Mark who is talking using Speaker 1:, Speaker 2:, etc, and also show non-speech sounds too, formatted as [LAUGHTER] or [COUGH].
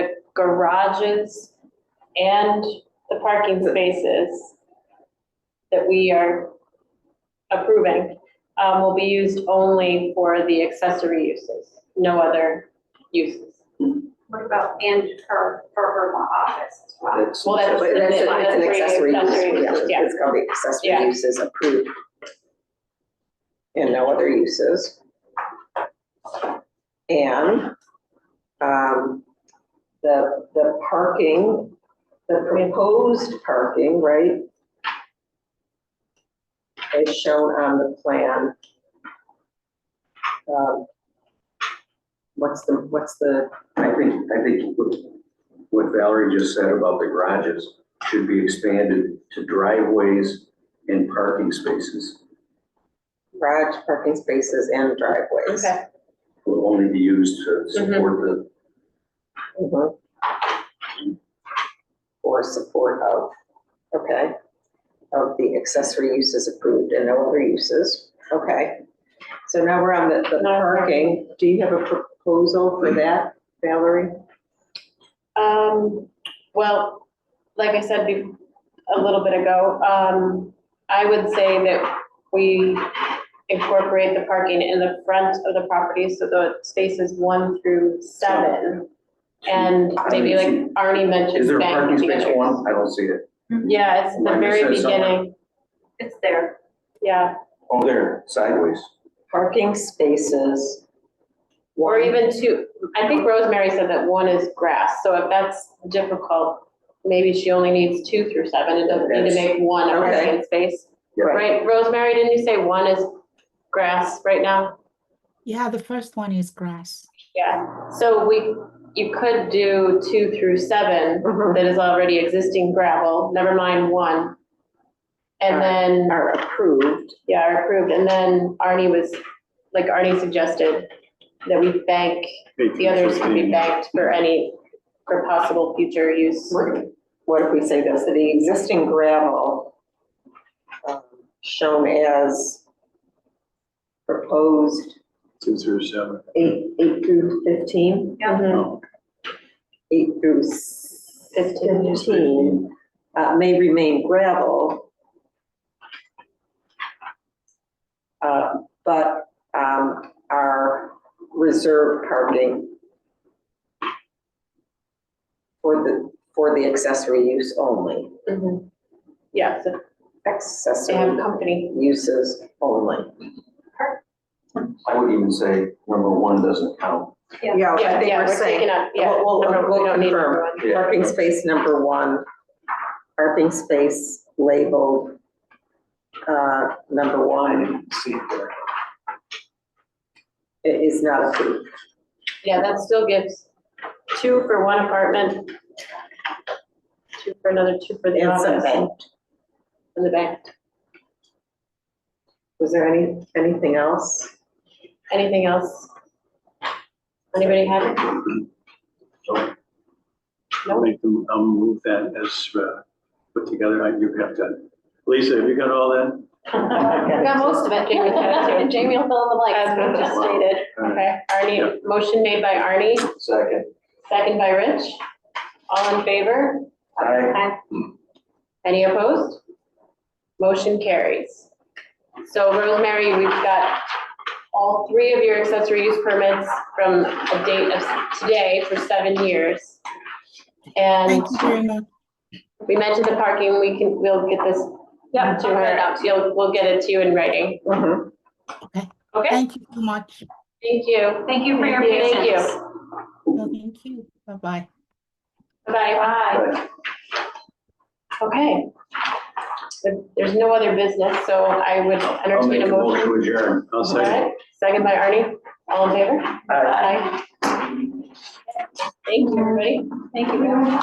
Speaker 1: garages and the parking spaces that we are approving um, will be used only for the accessory uses, no other uses.
Speaker 2: What about and her, for her law office as well?
Speaker 3: It's-
Speaker 1: Well, that's-
Speaker 4: But that's, it's an accessory use,
Speaker 1: Accessory use,
Speaker 4: yeah,
Speaker 1: yeah.
Speaker 4: it's called the
Speaker 1: Yeah.
Speaker 4: accessory uses approved. And no other uses. And, um, the, the parking, the proposed parking, right? Is shown on the plan. Um, What's the, what's the,
Speaker 3: I think, I think what- what Valerie just said about the garages should be expanded to driveways and parking spaces
Speaker 4: garage parking spaces and driveways?
Speaker 3: will only be used to
Speaker 1: Mm-hmm.
Speaker 3: support the
Speaker 4: Mhm. Or support of, okay, of the accessory uses approved and no other uses, okay. So now we're on the, the parking, do you have a proposal for that, Valerie?
Speaker 1: Um, well, like I said be- a little bit ago, um, I would say that we incorporate the parking in the front of the property, so the spaces one through seven. And maybe like Arnie mentioned.
Speaker 3: Is there a
Speaker 1: bank
Speaker 3: parking space
Speaker 1: features.
Speaker 3: one? I don't see it.
Speaker 1: Yeah, it's the
Speaker 3: Mine
Speaker 1: very
Speaker 3: says somewhere.
Speaker 1: beginning,
Speaker 2: It's there.
Speaker 1: yeah,
Speaker 3: Oh, there, sideways.
Speaker 4: Parking spaces.
Speaker 1: or
Speaker 4: one-
Speaker 1: even two, I think Rosemary said that one is grass, so if that's difficult, maybe she only needs two through seven, it doesn't need to
Speaker 3: Yes.
Speaker 1: make one a
Speaker 4: Okay.
Speaker 1: parking space.
Speaker 3: Yeah.
Speaker 1: Right, Rosemary, didn't you say one is grass right now?
Speaker 5: Yeah, the first one is grass.
Speaker 1: Yeah. So we, you could do two through seven
Speaker 4: Mhm.
Speaker 1: that is already existing gravel, never mind one. And then,
Speaker 4: Are approved,
Speaker 1: yeah, are approved, and then Arnie was, like Arnie suggested, that we bank, the others could be banked for any, for possible future use.
Speaker 4: What- what if we say this, the existing gravel um, shown as proposed
Speaker 6: Two through seven.
Speaker 4: eight, eight through fifteen? Mm-hmm.
Speaker 1: Mhm.
Speaker 4: eight through s- fifteen, uh, may remain gravel. Uh, but, um, our reserve parking for the, for the accessory use only,
Speaker 2: Mm-hmm.
Speaker 1: Mhm. Yeah, so they have
Speaker 4: accessory
Speaker 1: company.
Speaker 4: uses only.
Speaker 3: I would even say number one doesn't count.
Speaker 2: Yeah.
Speaker 4: Yeah, I think
Speaker 1: Yeah, we're
Speaker 4: we're
Speaker 1: taking
Speaker 4: saying,
Speaker 1: up, yeah.
Speaker 4: We'll- we'll-
Speaker 1: number-
Speaker 4: we'll
Speaker 1: we don't need
Speaker 4: confirm.
Speaker 1: number one.
Speaker 3: Yeah.
Speaker 4: parking space number one, parking space labeled, uh, number one.
Speaker 6: See it there.
Speaker 4: It is not approved.
Speaker 1: Yeah, that still gives two for one apartment, two for another, two for the
Speaker 4: And some
Speaker 1: office
Speaker 4: banked.
Speaker 1: and the bank.
Speaker 4: Was there any, anything else?
Speaker 1: Anything else? Anybody have it?
Speaker 6: I'll make them, I'll move um, that as, uh, put together, I, you have to, Lisa, have you got all that?
Speaker 1: We [LAUGHS] got most of it. Jamie's got [LAUGHS] it, too.
Speaker 2: Jamie will fill in the
Speaker 1: As we just stated. Okay,
Speaker 6: Yeah.
Speaker 1: Arnie, motion made by Arnie,
Speaker 3: Second,
Speaker 1: second by Rich. All in favor?
Speaker 3: I,
Speaker 1: Any opposed? Motion carries. So Rosemary, we've got all three of your accessory use permits from a date of today for seven years. And
Speaker 5: Thank you very much.
Speaker 1: we mentioned the parking, we can, we'll get this
Speaker 2: Yep.
Speaker 1: to her, you'll, we'll get it to you in writing.
Speaker 4: Mhm.
Speaker 1: Okay,
Speaker 5: Thank you so much.
Speaker 1: thank you.
Speaker 2: Thank you for your
Speaker 1: Thank you.
Speaker 2: patience.
Speaker 1: Thank you.
Speaker 5: No, Thank you. Bye-bye.
Speaker 1: Bye-bye.
Speaker 2: Bye.
Speaker 1: Okay. If There's no other business, so I would
Speaker 3: I'll
Speaker 1: entertain
Speaker 3: make a
Speaker 1: a motion.
Speaker 3: motion to adjourn.
Speaker 6: I'll
Speaker 1: All
Speaker 6: second.
Speaker 1: right, second by Arnie, all in favor?
Speaker 3: Aye.
Speaker 1: Aye. Thank you, everybody.
Speaker 2: Thank you.